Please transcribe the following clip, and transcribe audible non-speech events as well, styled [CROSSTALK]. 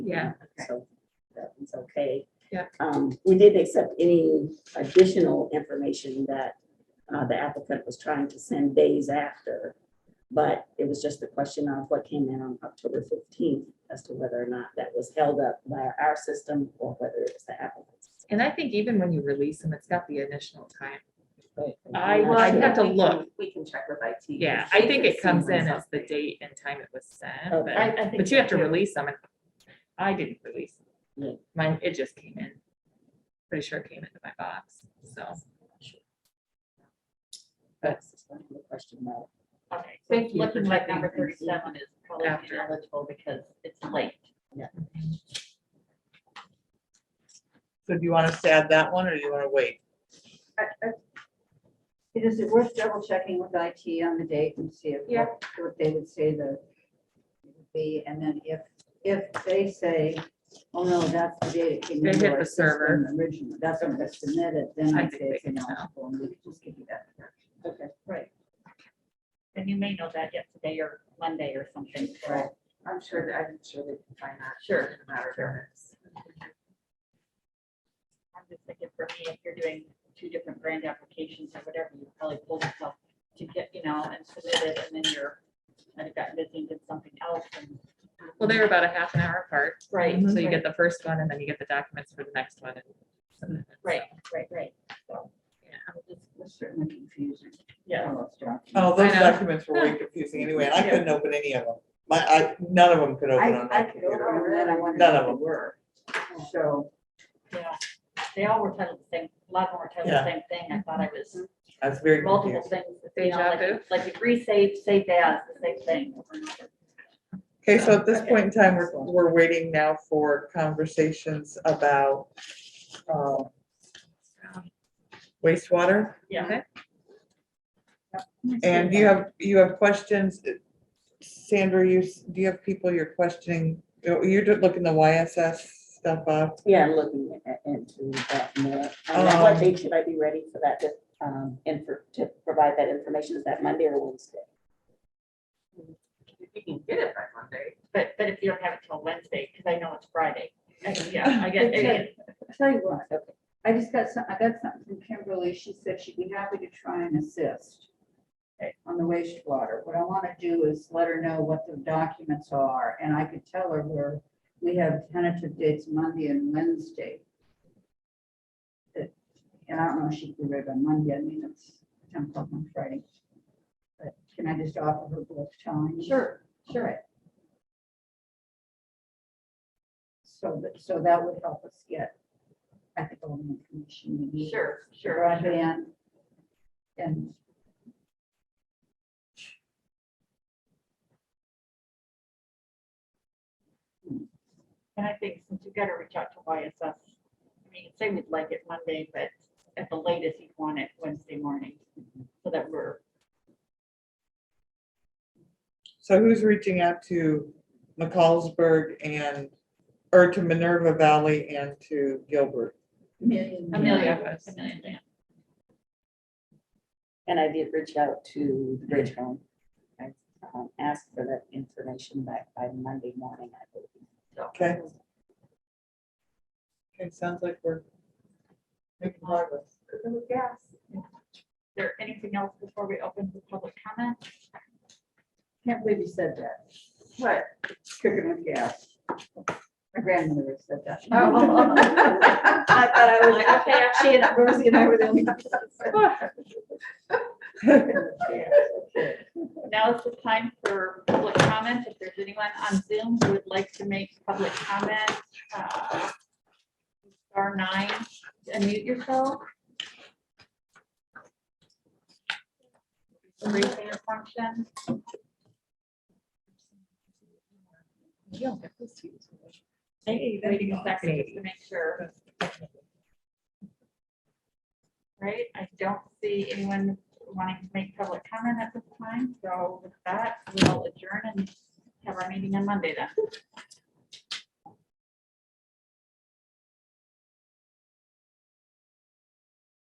Yeah. So that one's okay. Yeah. Um, we didn't accept any additional information that uh, the applicant was trying to send days after. But it was just a question of what came in on October fifteenth as to whether or not that was held up by our system or whether it was the applicant's. And I think even when you release them, it's got the initial time. I- Well, I think have to we can- look. We can check with IT. Yeah, She I think could it comes see in as the something. date and time it was sent, Okay. I, but, I think. but you have to so, too. release them. and I didn't release. them. Yeah. Mine, it just came in. Pretty sure it came into my box, so. That's just one of the question mark. Okay, so Thank it's you for looking like checking number things, yeah. thirty-seven is probably After. ineligible because it's late. So do you want us to add that one or do you want to wait? Is it worth double checking with IT on the date and see if, Yeah. what what they would say the would be, and then if, if they say, oh no, that's the date it came They into hit our the server. system originally, that's when it was submitted, then I I'd think say it's they can tell. ineligible, and we could just give you that. Okay. And you may know that yet today or Monday or something. so- Right. I'm sure that, I'm sure they can find that. Sure. in a Matter of minutes. I'm just thinking for me, if you're doing two different grant applications or whatever, you probably pull yourself to get, you know, and submit it and then you're, might have gotten busy and did something else and. Well, they're about a half an hour apart. Right. So you right, get the first one and then you get the documents for the next one. and submit it, so. Right, right, right. So, That's certainly confusing. yeah. All those documents. Oh, those I know. documents were way confusing anyway. and I couldn't open any of them. My, I, none of them could open I, on I that could computer. open that, I wonder. None if of they them. Were, so, Yeah. They all were titled the same, a lot of them were titled Yeah. the same thing. I thought I was That's very multiple confusing. things. you know, Deja like- vu. Like degree saved, saved as, the same thing. over and over. Okay, so at this point in time, we're, we're waiting now for conversations about um, wastewater. Yeah. Okay. And you have, you have questions. Sandra, you, s- do you have people you're questioning? You're you're looking the YSS stuff up? Yeah, I'm looking at- into that more. Um, at What Um, date should I be ready for that, to, um, and for, to provide that information? Is that Monday or Wednesday? If you can get it by Monday. But, but if you don't have it till Wednesday, because I know it's Friday. I- Yeah, I get, I get- I'll tell you what, I just got some, I got something from Kimberly, she said she'd be happy to try and assist on the wastewater. What I want to do is let her know what the documents are, and I could tell her where we have tentative dates Monday and Wednesday. But- And I don't know if she can be ready by Monday, I mean, it's ten o'clock on Friday. But can I just offer her both times? sure, sure. Right. So that, so that would help us get, I think, all the information we [LAUGHS] need. Sure, for sure. Broadband. And And I think since you gotta reach out to YSS, I mean, say we'd like it Monday, but at the latest, you'd want it Wednesday morning. So that we're, So who's reaching out to McCallsburg and, or to Minerva Valley and to Gilbert? Amelia, Yes. Amelia, Dan. And I did reach out to the Bridge Home. I um, asked for that information back by Monday morning, I believe. Okay. Okay, sounds like we're making progress. Yes. Is there anything else before we open the public comment? can't believe you said that, What? cooking with gas. My grandmother said that. Oh. I thought I was like, okay, she and Rosie and I were the only. ones that said cooking with gas. Now is the time for public comment. If there's anyone on Zoom who would like to make public comment, uh, star nine, unmute yourself. Raise hand function. Hey, waiting a second just to make sure. Right, I don't see anyone wanting to make public comment at this time, so with that, we'll adjourn and have our meeting on Monday then.